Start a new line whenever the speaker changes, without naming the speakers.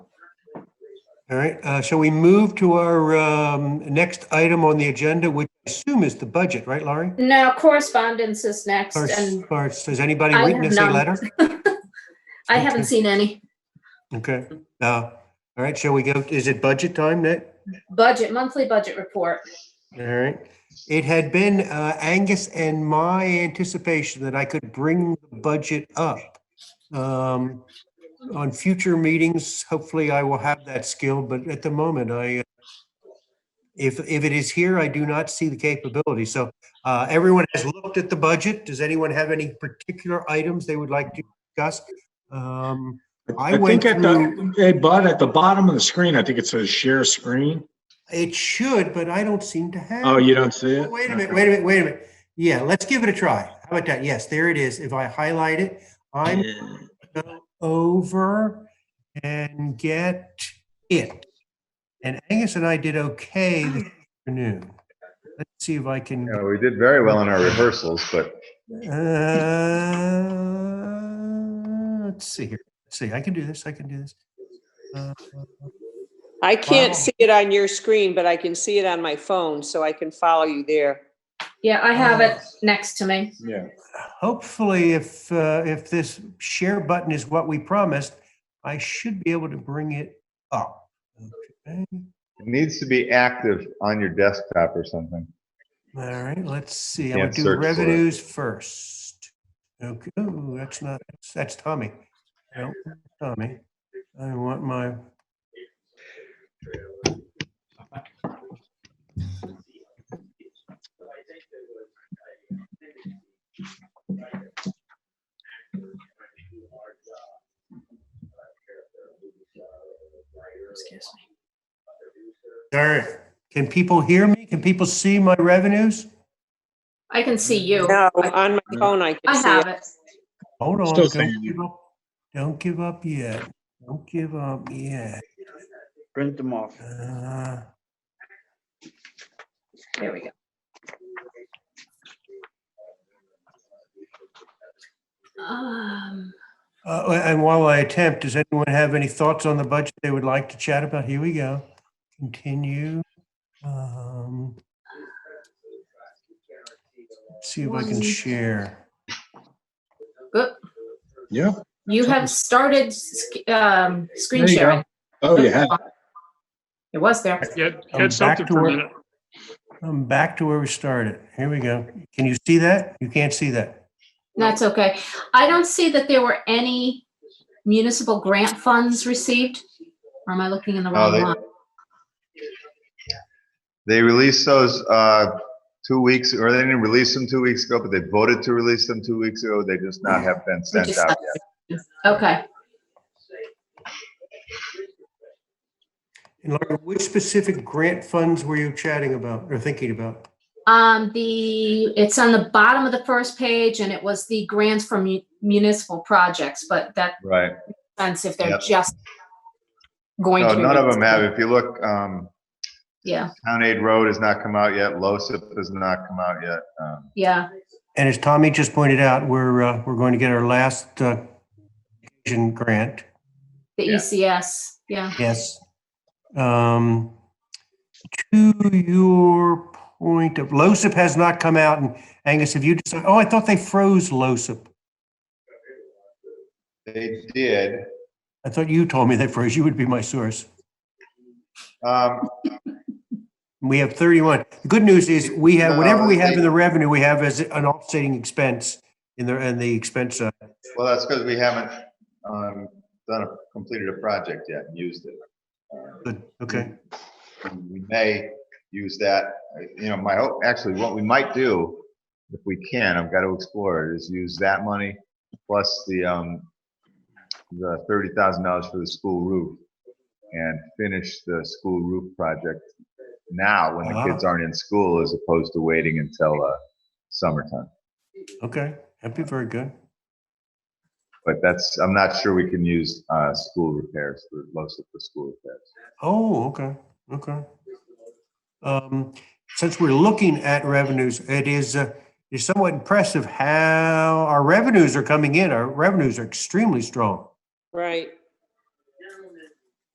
All right, uh, shall we move to our um, next item on the agenda, which I assume is the budget, right, Laurie?
No, correspondence is next
Or,
and
or does anybody
I have
witness a
none.
letter?
I
Okay.
haven't seen any.
Okay, uh, all right, shall we go, is it budget time, Nick?
Budget, monthly budget report.
All right. It had been uh, Angus and my anticipation that I could bring the budget up. Um, On future meetings, hopefully I will have that skill, but at the moment I, uh, if, if it is here, I do not see the capability. So uh, everyone has looked at the budget. Does anyone have any particular items they would like to discuss? Um, I
I
went
think at the, hey, Bud, at the bottom of the screen, I think it says share screen.
It should, but I don't seem to have.
Oh, you don't see it?
Wait a minute,
Okay.
wait a minute, wait a minute. Yeah, let's give it a try. How about that? Yes, there it is. If I highlight it, I'm
Yeah.
go over and get it. And Angus and I did okay this afternoon. Let's see if I can,
Yeah, we did very well in our rehearsals, but
uh, let's see here. Let's see, I can do this, I can do this. Uh,
I
Wow.
can't see it on your screen, but I can see it on my phone, so I can follow you there.
Yeah, I have it next to me.
Yeah.
Hopefully, if, uh, if this share button is what we promised, I should be able to bring it up. Okay.
it needs to be active on your desktop or something.
All right, let's see. I'm gonna
Can't
do
search for it.
revenues first. Okay, ooh, that's not, that's- that's Tommy. I don't want Tommy, I want my.
Excuse me.
All right, can people hear me? Can people see my revenues?
I can see you.
No,
I
on my phone, I
I
can see
have
it.
it.
Hold on,
Still
don't
seeing you.
give up, don't give up yet. Don't give up yet.
Print them off.
Uh,
There we go. Um,
Uh, and while I attempt, does anyone have any thoughts on the budget they would like to chat about? Here we go. Continue. Um, See if I can
One.
share.
good.
Yeah.
You have started sc- um, screen
There you go.
sharing.
Oh, you have.
It was there.
Get,
I'm back
get something
to
for
work.
a minute.
I'm back to where we started. Here we go. Can you see that? You can't see that.
That's okay. I don't see that there were any municipal grant funds received. Or am I looking in the
Oh,
wrong
they-
line?
They released those uh, two weeks, or they didn't release them two weeks ago, but they voted to release them two weeks ago. They just not have been
We
sent
just-
out.
Okay,
And Laura, which specific grant funds were you chatting about or thinking about?
um, the, it's on the bottom of the first page and it was the grants for mu- municipal projects, but that
Right.
sense if they're
Yep.
just going
No,
to.
none of them have. If you look, um,
Yeah,
Town Aid Road has not come out yet. LoSiP has not come out yet. Um,
yeah,
And as Tommy just pointed out, we're, uh, we're going to get our last uh, Asian grant.
the
Yeah.
ECS, yeah.
Yes. Um, to your point of, LOSIP has not come out and Angus, have you decided, oh, I thought they froze LOSIP.
They did.
I thought you told me they froze, you would be my source.
Um,
We have 31. The good news is we have,
No,
whatever we have in
they-
the revenue, we have as an offsetting expense in the, in the expense uh, side.
Well, that's because we haven't um, done, a- completed a project yet and used it. Um,
Good, okay.
and we may use that, uh, you know, my hope, actually, what we might do, if we can, I've got to explore it, is use that money plus the, um, the thirty thousand dollars for the school roof and finish the school roof project now when the
Wow.
kids aren't in school as opposed to waiting until, uh, summertime.
Okay, that'd be very good.
But that's, I'm not sure we can use, uh, school repairs, for most of the school repairs.
Oh, okay, okay. Um, Since we're looking at revenues, it is, uh, it's somewhat impressive how our revenues are coming in. Our revenues are extremely strong.
Right.